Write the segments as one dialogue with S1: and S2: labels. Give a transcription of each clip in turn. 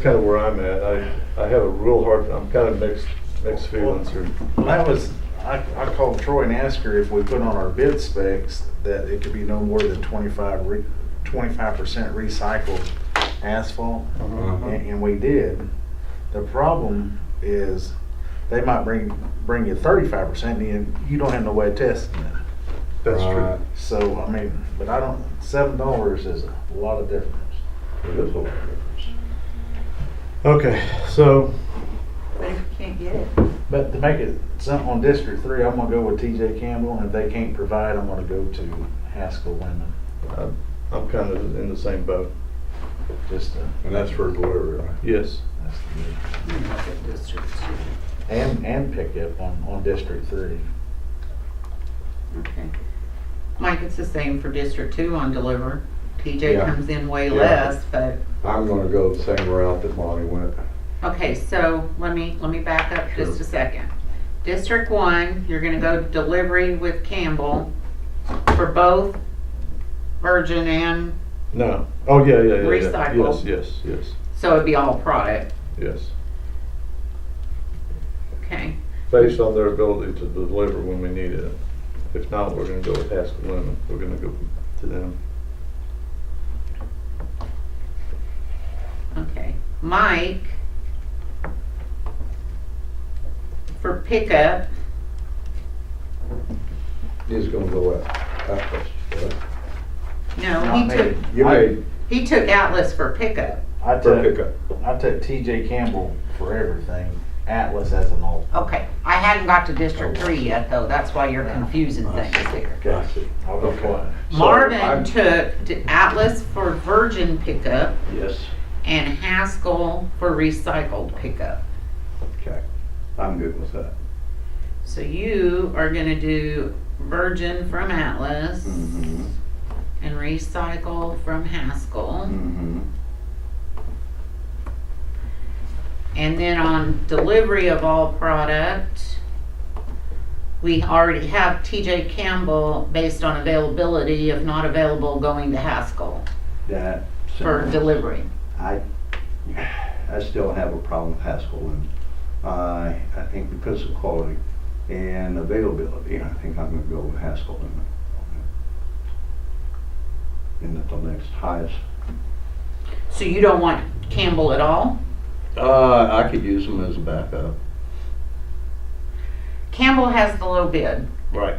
S1: kind of where I'm at. I, I have a real hard, I'm kind of mixed, mixed feelings here.
S2: Well, that was, I, I called Troy and asked her if we put on our bid specs that it could be no more than twenty-five re, twenty-five percent recycled asphalt,
S1: Uh-huh.
S2: and, and we did. The problem is, they might bring, bring you thirty-five percent, and you don't have no way of testing it.
S1: That's
S3: Right.
S1: true.
S2: So, I mean, but I don't, seven dollars is a lot of difference.
S1: It is a lot of difference. Okay, so,
S4: But if you can't get it,
S2: But to make it something on District Three, I'm gonna go with TJ Campbell, and if they can't provide, I'm gonna go to Haskell Women,
S1: I'm, I'm kind of in the same boat.
S2: just to.
S3: And that's for delivery, right?
S1: Yes.
S2: That's the deal.
S4: you know, get District Two.
S2: And, and pickup on, on District Three.
S4: Okay. Mike, it's the same for District Two on deliver. TJ
S3: Yeah.
S4: comes in way
S3: Yeah.
S4: less, but,
S3: I'm gonna go the same route that Bonnie went.
S4: okay, so let me, let me back up just
S3: Sure.
S4: a second. District One, you're gonna go delivery with Campbell for both Virgin and,
S1: No. Oh, yeah, yeah, yeah, yeah. Yes,
S4: Recycle.
S1: yes, yes,
S4: so it'd be all product,
S1: yes.
S4: okay?
S1: Based on their ability to deliver when we need it. If not, we're gonna go with Haskell Lemon. We're gonna go to them.
S4: Okay, Mike, for pickup,
S3: He's gonna go out. out first, right?
S4: no,
S2: Not
S4: he
S2: me.
S4: took,
S3: You
S2: I-
S3: made
S4: he took Atlas for pickup.
S2: I
S3: for
S2: took,
S3: pickup.
S2: I took TJ Campbell for everything, Atlas as an alt.
S4: Okay, I hadn't got to District Three yet, though, that's why you're confusing things here.
S3: Oh, I see.
S2: I'll go
S3: Okay.
S2: quiet.
S3: So,
S4: Marvin
S3: I'm-
S4: took to Atlas for virgin pickup
S3: Yes.
S4: and Haskell for recycled pickup.
S3: Okay, I'm good with that.
S4: So you are gonna do virgin from Atlas
S3: Mm-hmm,
S4: and recycle from Haskell.
S3: mm-hmm.
S4: And then on delivery of all product, we already have TJ Campbell based on availability, if not available, going to Haskell
S5: that.
S4: for delivery.
S5: I, I still have a problem with Haskell and I, I think because of quality and availability, I think I'm gonna go with Haskell and. And at the next highest.
S4: So you don't want Campbell at all?
S5: Uh, I could use them as a backup.
S4: Campbell has the low bid.
S5: Right.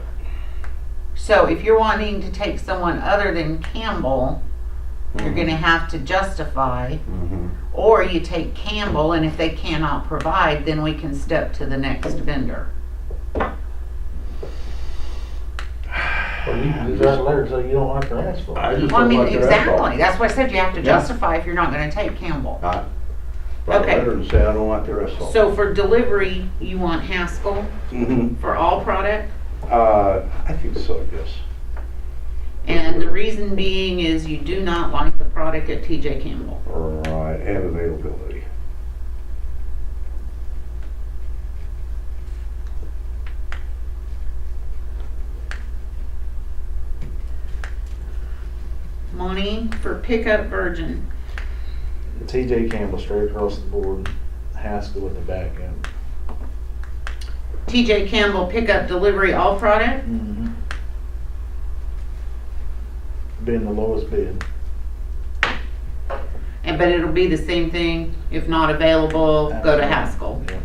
S4: So if you're wanting to take someone other than Campbell, you're gonna have to justify,
S5: Mm-hmm,
S4: or you take Campbell, and if they cannot provide, then we can step to the next vendor.
S2: Well, you can do that later, so you don't have to ask for
S5: I
S2: it.
S5: just
S4: Well, I
S5: don't
S4: mean,
S5: like the
S4: exactly,
S5: asphalt.
S4: that's why I said you have to
S5: Yeah.
S4: justify if you're not gonna take Campbell.
S5: I,
S3: Right,
S4: Okay.
S3: letter
S5: better
S3: and
S5: than
S3: say,
S5: say I don't like the asphalt.
S4: So for delivery, you want Haskell
S5: Mm-hmm,
S4: for all product?
S5: uh, I think so, yes.
S4: And the reason being is you do not like the product at TJ Campbell.
S5: Right, and availability.
S4: Monty, for pickup virgin.
S2: TJ Campbell straight across the board, Haskell with the back end.
S4: TJ Campbell pickup delivery all product?
S2: Been the lowest bid.
S4: And, but it'll be the same thing, if not available, go to Haskell.
S2: Yeah.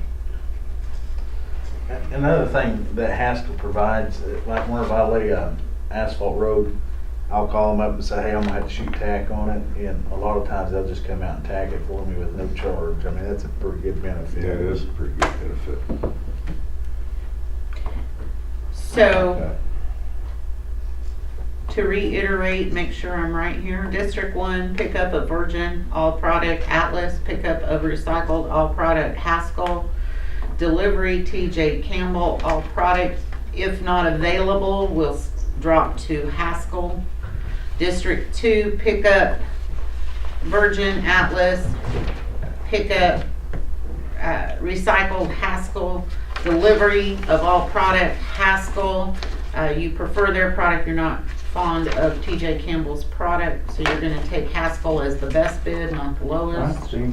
S2: A- Another thing that Haskell provides, uh, like whenever I lay a asphalt road, I'll call them up and say, hey, I'm gonna have to shoot tack on it, and a lot of times they'll just come out and tack it for me with no charge, I mean, that's a pretty good benefit.
S3: yeah, it is a pretty good benefit.
S4: So,
S3: Okay.
S4: to reiterate, make sure I'm right here, District One, pickup of virgin, all product, Atlas, pickup of recycled, all product, Haskell. Delivery, TJ Campbell, all product, if not available, will s- drop to Haskell. District Two, pickup, virgin, Atlas, pickup, uh, recycled Haskell, delivery of all product Haskell. Uh, you prefer their product, you're not fond of TJ Campbell's product, so you're gonna take Haskell as the best bid, not the
S5: I
S4: lowest.
S5: see,